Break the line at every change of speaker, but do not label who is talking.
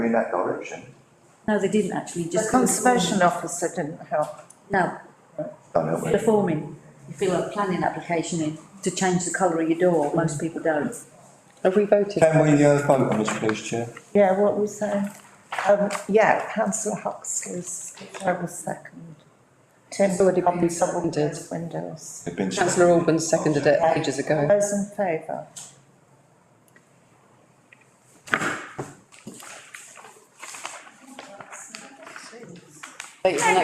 in that direction.
No, they didn't actually,
The
just.
conservation officer didn't help.
No,
Don't help
the
me.
forming. You fill a planning application in to change the colour of your door, most people don't.
Have we voted?
Can we uh, vote on this, please, Chair?
Yeah, what was that? Um, yeah, councillor Huxley's, I was second. Tim,
already
on
been
double
seconded.
glazed windows.
It's been-
Councillor Alban seconded it ages ago.
Those in favour?
It's an